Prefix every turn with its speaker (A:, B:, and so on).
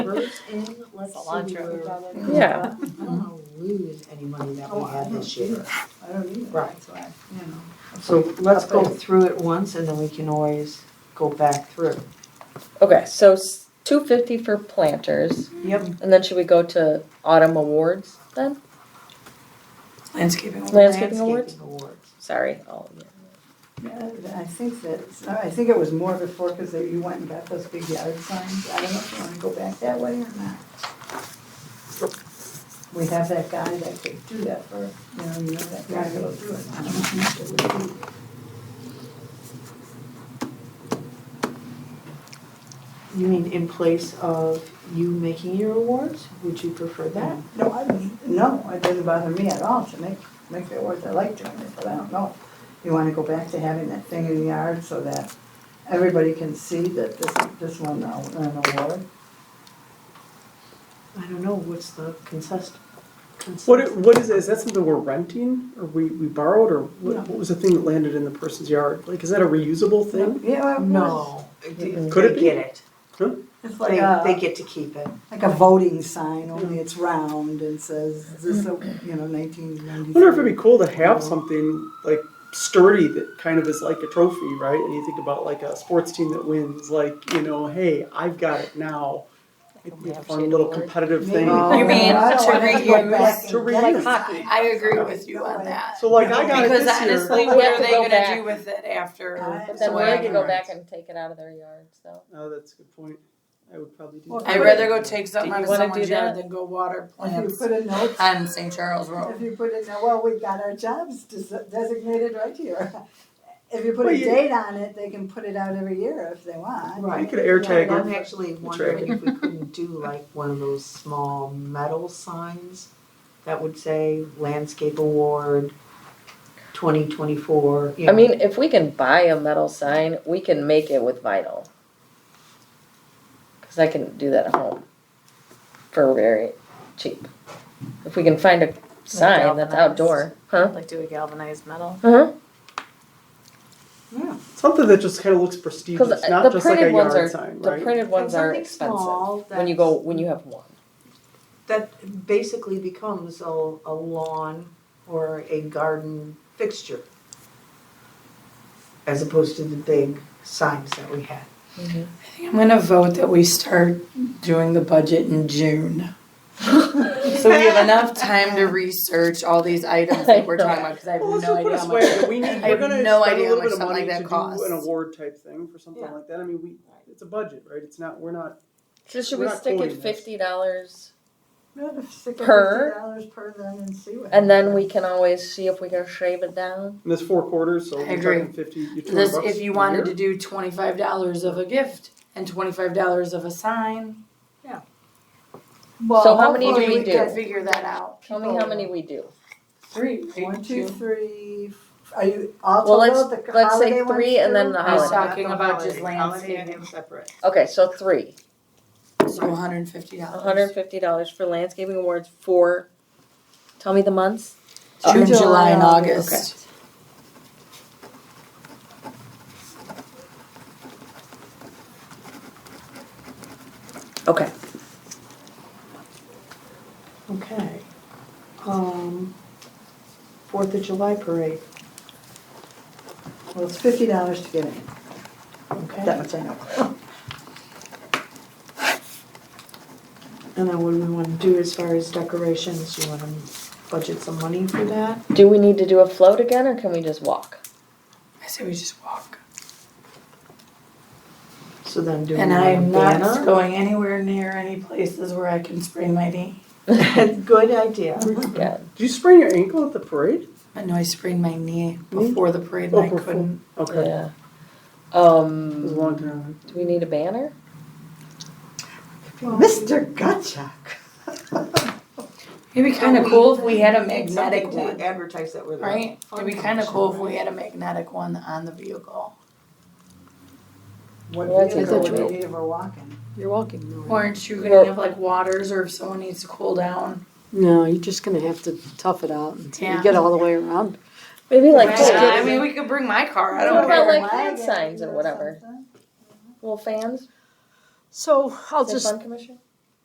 A: Hers in, let's see, we
B: Cilantro.
A: were-
C: Yeah.
A: I don't wanna lose any money that we had this year.
D: I don't either.
A: Right.
D: That's why, you know.
A: So let's go through it once and then we can always go back through.
C: Okay, so two fifty for planters,
A: Yep.
C: and then should we go to autumn awards then?
D: Landscaping.
C: Landscaping awards?
A: awards.
C: Sorry, Oh, all of you.
D: I think that, I think it was more before because you went and got those big yard signs. I don't know if you want to go back that way or not. We have that guy that could do that for, you know, you know that guy that'll do it. I don't know if it would be.
A: You mean in place of you making your awards? Would you prefer that?
D: No, I don't, no, it doesn't bother me at all to make, make the awards, I like doing it, but I don't know. You wanna go back to having that thing in the yard so that everybody can see that this, this one, uh, an award?
A: I don't know, what's the consist?
E: What,
A: consensus?
E: i- what is, is that something we're renting, or we, we borrowed, or what,
D: No.
E: what was the thing that landed in the person's yard? Like, is that a reusable thing?
D: Yeah, well, of course.
A: No.
E: Could
A: They
E: it be?
A: get it.
D: It's like uh,
A: They, they
D: a,
A: get to keep it.
D: like a voting sign, only it's round and says, this, uh, you know, nineteen ninety-three.
E: I wonder if it'd be cool to have something like sturdy that kind of is like a trophy, right? And you think about like a sports team that wins, like, you know, hey, I've got it now. It's a fun little competitive thing.
A: Oh, You mean
D: I don't
B: to
D: wanna go
B: reuse?
D: back and
E: To
D: get
E: reuse.
D: it.
E: Hockey.
F: I agree with you on that.
E: So like, I got it
F: Because
E: this year.
F: honestly,
C: We
F: what
C: have
F: are
C: to
F: they
C: go
F: gonna
C: back.
F: do with it after?
C: But then
F: So
C: we're
F: I
C: gonna go back and take it out of their yards, so.
E: Oh, that's a good point. I would probably do
D: Well,
E: that.
F: I'd rather go take something
C: Do
F: out
C: you
F: of
C: wanna
F: someone's
C: do that?
F: yard than go water
D: If you
F: plants
D: put a note
F: on St. Charles Road.
D: If you put it, well, we got our jobs des- designated right here. If you put
E: Well,
D: a
E: you-
D: date on it, they can put it out every year if they want.
E: You
A: Right.
E: could air
A: Yeah,
E: tag
A: and I'm
E: it.
A: actually wondering if we couldn't do like one of those small metal signs that would say landscape award twenty twenty-four, you
C: I
A: know.
C: mean, if we can buy a metal sign, we can make it with vinyl. Cause I can do that at home for very cheap. If we can find a sign
B: galvanized.
C: that's outdoor, huh?
B: Like do a galvanized metal.
C: Uh-huh,
E: Something that just kind of looks prestigious,
C: uh,
E: not
C: the
E: just like a
C: printed ones
E: yard
C: are-
E: sign,
C: the
E: right?
C: printed ones are
A: Something
C: expensive,
A: small
C: when you
A: that's-
C: go, when you have one.
A: That basically becomes a, a lawn or a garden fixture. As opposed to the big signs that we had.
F: I'm gonna vote that we start doing the budget in June. So we have enough time to research all these items that we're talking about, because I have
E: Well, let's
F: no
E: just
F: idea
E: put us
F: how
E: away.
F: much.
E: We need,
F: I
E: we're
F: have
E: gonna
F: no
E: spend a
F: idea
E: little
F: how
E: bit of
F: much something
E: money
F: like
E: to
F: that costs.
E: do an award type thing for something
A: Yeah.
E: like that. I mean, we it's a budget, right? It's not we're not.
C: So should
E: We're
C: we
E: not
C: stick at
E: quoting this.
C: fifty dollars
D: No, stick a
C: Per?
D: fifty dollars per then and see what.
C: and then we can always see if we can shave it down?
E: And there's four quarters, so
F: I
E: we're
F: agree.
E: talking fifty. You're
F: This, if you wanted to do twenty-five dollars of a gift and twenty-five dollars of a sign.
C: So how many do
F: hopefully
C: we
F: can
C: do?
F: Figure that out.
C: Tell me how many we do.
F: Three,
D: One,
F: two.
D: two, three, f- are you all
C: Well, let's-
D: total, the
C: let's say
D: holiday ones
C: three and then
D: too?
C: the
F: I was
C: holiday.
F: talking about just landscaping,
A: separate.
C: Okay, so three,
F: so hundred and fifty dollars.
C: hundred and fifty dollars for landscaping awards for, tell me the months?
F: June, July and
C: Okay.
F: August.
C: Okay.
A: Okay. Um, Fourth of July parade,
D: Well, it's fifty dollars to get in,
A: okay?
D: that much I know.
A: And then what do we wanna do as far as decorations? You wanna budget some money for that?
C: Do we need to do a float again or can we just walk?
F: I say we just walk.
A: So then do we
F: And
A: want a
F: I'm not
A: banner?
F: going anywhere near any places where I can sprain my knee.
A: Good idea.
C: Yeah.
E: Did you sprain your ankle at the parade?
F: I know I sprained my knee
E: Knee?
F: before the parade
E: Oh,
F: and I
E: before.
F: couldn't.
E: Okay,
C: Yeah.
E: it was a
C: Um,
E: long time.
C: do we need a banner?
D: Mr. Gutchuck.
F: It'd be kind of cool if we had a magnetic
A: Something to
F: one,
A: Advertise that we're there.
F: right? It'd be kind of cool if we had a magnetic one on the vehicle.
D: What
C: Well, that's a
D: vehicle
C: good
D: would
C: one.
D: we need if we're walking?
G: You're walking.
F: Aren't you
C: Well-
F: gonna have like waters or if someone needs to cool down?
G: No, you're just gonna have to tough it out until
F: Yeah.
G: you get all the way around.
C: Maybe like,
F: Yeah,
C: this.
F: I mean, we could bring my car, I
C: What
F: don't
C: about,
F: care.
C: like, hand signs or whatever? little fans,
G: So I'll
C: the
G: just,
C: fun commission?